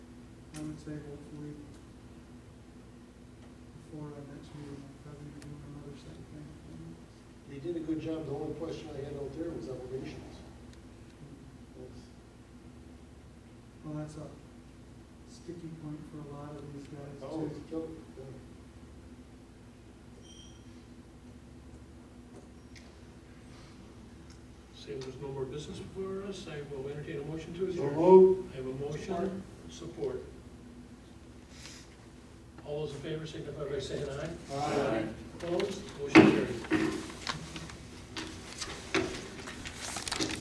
comments able to read before our next meeting, probably do another set of things. They did a good job, the only question I had out there was elevations. Well, that's a sticky point for a lot of these guys Oh, too. yep, Seeing there's no more business for us, I will entertain a motion to yeah. So adjourn. moved. I have a motion, support. All those in favor signify by saying aye. Aye. Opposed, motion carried.